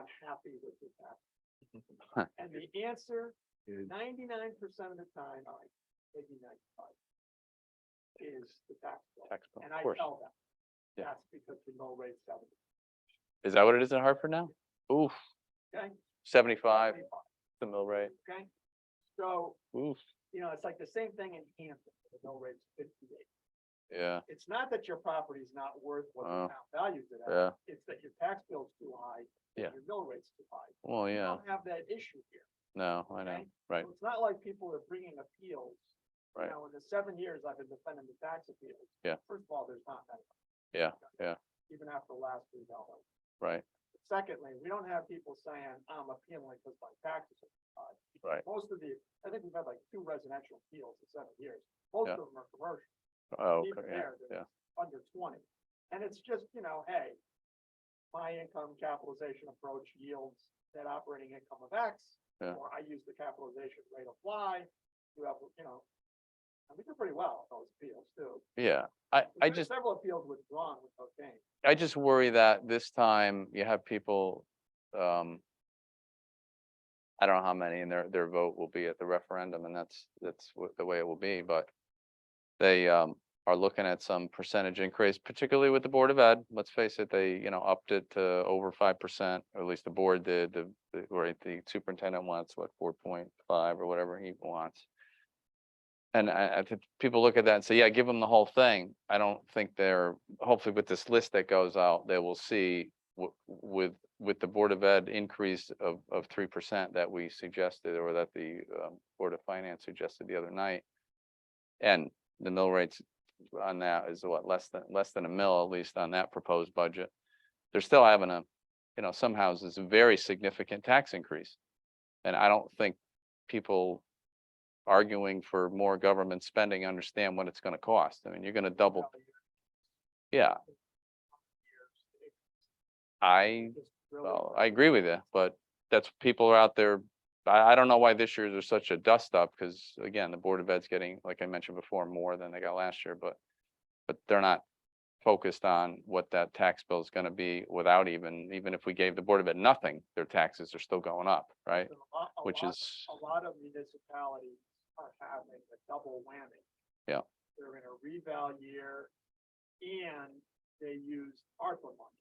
unhappy with this app. And the answer, ninety-nine percent of the time, I, maybe ninety-five, is the tax bill. tax bill, And of I course. tell them, Yeah. that's because the mill rate's seven. Is that what it is in Hartford now? Oof, Okay? seventy-five, the mill rate, Okay? So, oof, you know, it's like the same thing in Hampton, the mill rate's fifty-eight. yeah, It's not that your property's not worth what Oh. the town values it at, yeah, it's that your tax bill's too high. and Yeah. Your mill rate's too high. well, We yeah, Don't have that issue here. no, I know, Okay. right, So It's not like people are bringing appeals. Right. You know, in the seven years I've been defending the tax appeals. Yeah. First of all, there's not that. many. Yeah, yeah. Even after the last three dollars. right, Secondly, we don't have people saying, I'm appealing because my taxes are too high. Right. Most of the, I think we've had like two residential appeals in seven years. Most Yeah. of them are commercial, oh, even okay, yeah, there, yeah, they're under twenty. And it's just, you know, hey, my income capitalization approach yields that operating income of X. Yeah. Or I use the capitalization rate of Y, you have, you know, and we do pretty well on those appeals too. yeah, I, I We've had just, Several appeals withdrawn with no change. I just worry that this time you have people, um. I don't know how many and their, their vote will be at the referendum and that's, that's wha- the way it will be, but. They, um, are looking at some percentage increase, particularly with the Board of Ed. Let's face it, they, you know, upped it to over five percent. Or at least the board did, the, the- or the superintendent wants, what, four point five or whatever he wants. And I, I think people look at that and say, yeah, give them the whole thing. I don't think they're, hopefully with this list that goes out, they will see w- with, with the Board of Ed increase of, of three percent that we suggested or that the um, Board of Finance suggested the other night. And the mill rates on that is what, less than, less than a mill, at least on that proposed budget. They're still having a, you know, some houses, a very significant tax increase. And I don't think people arguing for more government spending understand what it's gonna cost. I mean, you're gonna double, Probably years, yeah, it's I, just really well, bad. I agree with you, but that's, people are out there. I, I don't know why this year there's such a dust up, because again, the Board of Ed's getting, like I mentioned before, more than they got last year, but. But they're not focused on what that tax bill is gonna be without even, even if we gave the Board of Ed nothing, their taxes are still going up, right? So a lot- a Which lot- is, A lot of municipalities are having a double whammy. Yeah. They're in a revale year and they used ARPA money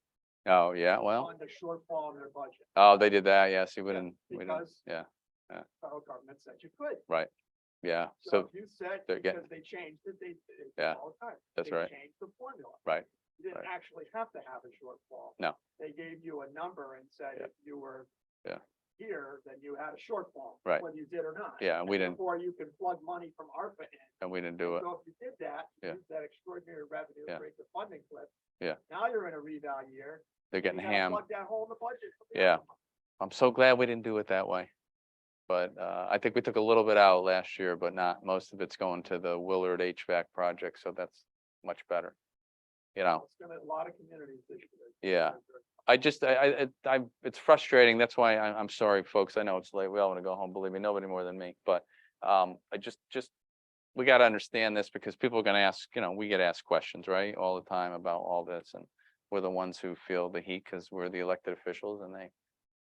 oh, yeah, well, on the shortfall in their budget. oh, they did that, yeah, see, we Yeah, didn't, we didn't, Because yeah, yeah. federal government said you could. yeah, So so, if you said, they're getting- because they changed it, they. they do it Yeah, all the time. that's They right. Changed the formula. Right, You didn't right. actually have to have a shortfall. No. They gave you a number and said Yeah. if you were. Yeah. Here, then you had a shortfall. Right. Whether you did or not. yeah, and we didn't, Or you can plug money from ARPA in. and we didn't do it, So if you did that, Yeah. use that extraordinary revenue, Yeah. break the funding cliff. Yeah. Now you're in a reval year. they're you getting gotta hammed. Plug that hole in the budget. from the Yeah. other one. I'm so glad we didn't do it that way. But uh, I think we took a little bit out last year, but not, most of it's going to the Willard HVAC project, so that's much better. You know, It's gonna, a lot of communities this year. yeah, I just, I, I, it- I, it's frustrating, that's why I, I'm sorry, folks, I know it's late, we all want to go home, believe me, nobody more than me, but um, I just, just we got to understand this because people are going to ask, you know, we get asked questions, right, all the time about all this and we're the ones who feel the heat because we're the elected officials and they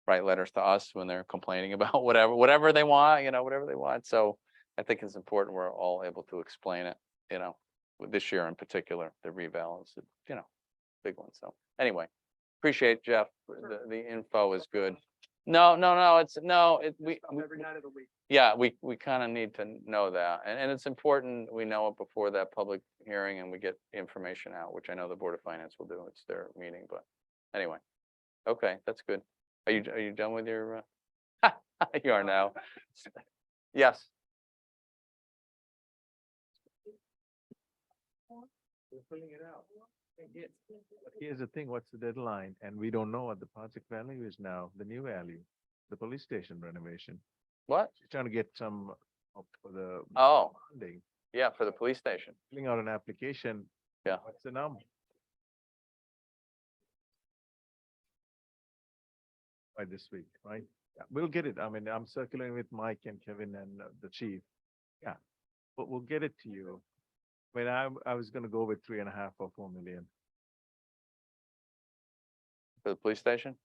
write letters to us when they're complaining about whatever, whatever they want, you know, whatever they want. So I think it's important we're all able to explain it, you know, with this year in particular, the rebalance, you know, big one. So anyway, appreciate Jeff. The, the info is good. No, no, no, it's, no, it, we, Just about we- Every night of the week. yeah, we, we kind of need to know that, and, and it's important, we know it before that public hearing and we get the information out, which I know the Board of Finance will do, it's their meeting, but anyway. Okay, that's good. Are you, are you done with your, uh, you are now. Yes, We're putting it out. Here's the thing, what's the deadline? And we don't know what the project value is now, the new value, the police station renovation. what? She's trying to get some of the Oh, funding, yeah, for the police station. filling out an application. Yeah. What's the number? By this week, right? Yeah, We'll get it. I mean, I'm circulating with Mike and Kevin and uh, the chief. Yeah, but we'll get it to you. But I, I was gonna go with three and a half or four million. For the police station?